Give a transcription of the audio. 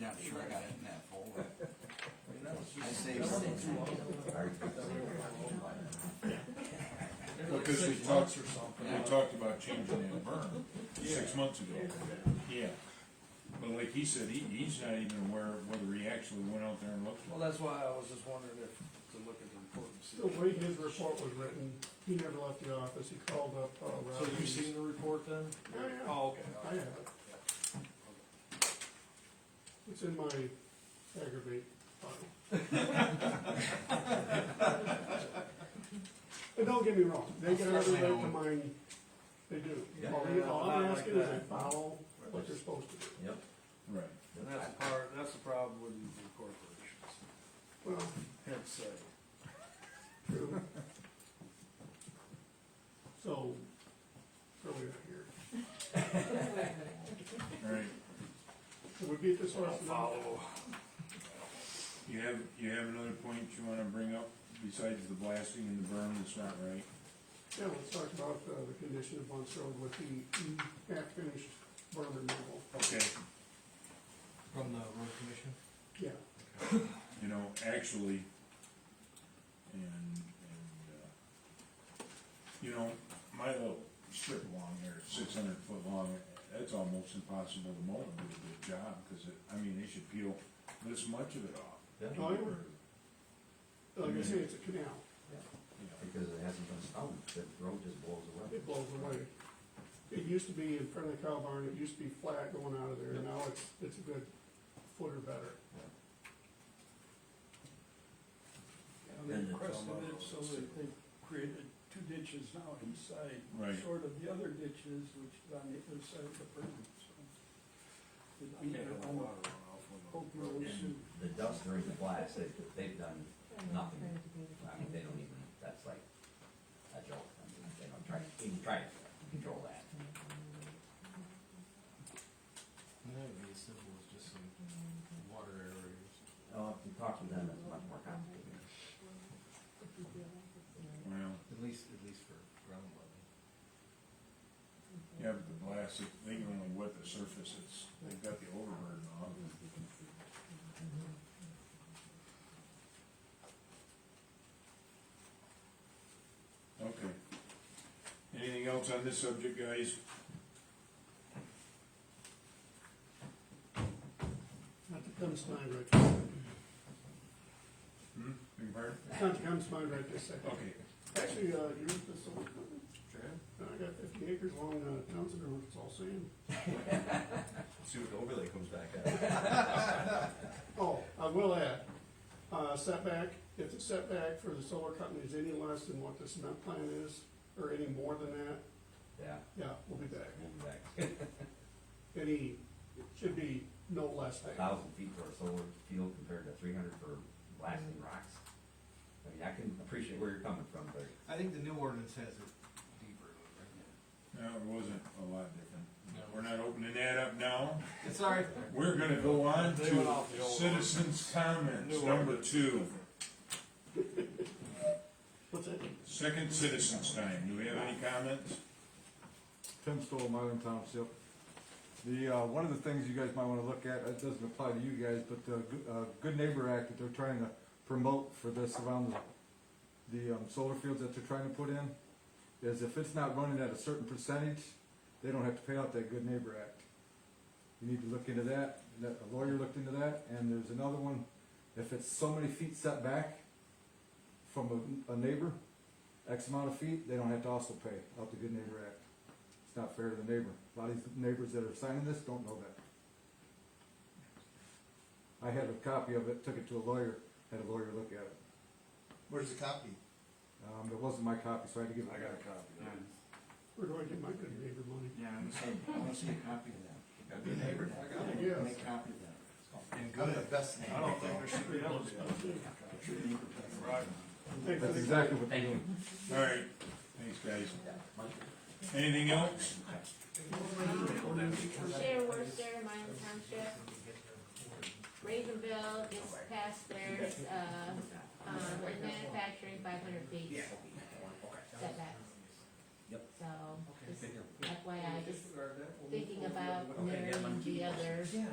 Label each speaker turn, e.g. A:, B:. A: Yeah, I'm sure I got it in that folder. I saved
B: That wasn't
A: it.
B: too long ago. They're like
C: Because we
B: six
C: talked-
B: months or something.
C: We talked about changing that burn six months ago. Yeah. But like he said, he, he's not even aware of whether he actually went out there and looked.
B: Well, that's why I was just wondering if, to look at the report and see.
D: The way his report was written, he never left the office, he called up, uh,
B: So
D: Rob.
B: you seen the report then?
D: Oh, yeah.
B: Oh, okay.
D: I have it. It's in my aggravate file. And don't get me wrong, they get every right to mine, they do.
A: Yeah.
D: All they- All
B: Yeah, I
D: I'm
B: like
D: asking is
B: that.
D: they follow what they're supposed to do.
E: Yep.
C: Right.
B: And that's the part, that's the problem with these big corporations,
D: Well,
B: hence uh, say.
D: true. So, where are we at here?
C: Right.
D: Can we beat this
B: Don't
D: horse? to death?
B: follow.
C: You have, you have another point you wanna bring up besides the blasting and the burn that's not right?
D: Yeah, let's talk about uh, the condition of Bunce Road with the half-finished berm removal.
C: Okay.
B: From the road commission?
D: Yeah,
C: You know, actually, and, and, uh, you know, my little strip along there, six hundred foot long, that's almost impossible to mow and do a good job, cause it, I mean, they should peel this much of it off.
E: Yeah.
D: Oh, yeah. like I say, it's a canal.
C: You know,
E: Because it hasn't been stopped, the road just blows away.
D: It blows away. It used to be in front of the cow barn, it used to be flat going out of there, now it's, it's a good foot or better.
F: And they requested it so that they created two ditches now inside,
C: Right.
F: short of the other ditches, which is on the other side of the berm, so. It
B: You can't have
F: either
B: a
F: on
B: water runoff
F: Hope
B: on the road.
F: Road
E: And the dust during the blast, they, they've done nothing, I mean, they don't even, that's like a joke, I mean, they don't try, even try to control that.
G: That would be as simple as just some water aerators.
E: Uh, if you talk to them, it's much more complicated.
C: Well,
G: At least, at least for ground level.
C: yeah, but the blast, it- they can only wet the surface, it's, they've got the overburden on. Okay. Anything else on this subject, guys?
D: Not to come to mind right this second.
C: Hmm, beg your pardon?
D: Not to come to mind right this second.
C: Okay,
D: Actually, uh, you read this one? I got fifty acres along uh, Townsend Road, it's all sand.
E: See what the overlay comes back at.
D: Oh, I will add, uh, setback, if the setback for the solar company is any less than what the cement plant is, or any more than that,
E: Yeah,
D: yeah, we'll be back.
E: we'll be back,
D: Any, it should be no less
E: a
D: than.
E: thousand feet for a solar field compared to three hundred for blasting rocks. I mean, I can appreciate where you're coming from, but
G: I think the new ordinance has it deeper, though, right?
C: no, it wasn't a lot different.
G: No.
C: We're not opening that up now.
G: It's all right.
C: We're gonna go on
B: They went
C: to
B: off the old one.
C: citizens' comments,
B: New
C: number
B: ordinance.
C: two.
D: What's that?
C: Second citizens' time. Do we have any comments?
H: Tim Stoll, Mylan Township. The, uh, one of the things you guys might wanna look at, it doesn't apply to you guys, but the Good- uh, Good Neighbor Act that they're trying to promote for this around the, the um, solar fields that they're trying to put in, is if it's not running at a certain percentage, they don't have to pay out that Good Neighbor Act. You need to look into that, That- a lawyer looked into that, and there's another one, if it's so many feet set back from a, a neighbor, X amount of feet, they don't have to also pay out the Good Neighbor Act. It's not fair to the neighbor. A lot of these neighbors that are signing this don't know that. I had a copy of it, took it to a lawyer, had a lawyer look at it.
I: Where's the copy?
H: Um, it wasn't my copy, so I had to give it
B: I got a
H: back.
B: copy.
A: Yeah,
D: Where do I get my good neighbor money?
A: Yeah, I'm saying, I wanna see a copy of that. Good neighbor.
D: Yes.
A: Make a copy of that.
G: And
I: I'm the
G: good,
I: best neighbor.
B: I don't think there should be
D: That
B: any.
D: was about it.
A: Good neighbor.
B: Right.
D: Thanks for
H: That's
D: the-
H: exactly what they
E: thank you.
H: do.
C: All right, thanks, guys. Anything else?
J: Share Worcester, Mine Township. Ravenville gets past theirs, uh, um, in manufacturing five hundred feet setbacks.
E: Yep.
J: So, just FYI, just thinking about mirroring the others.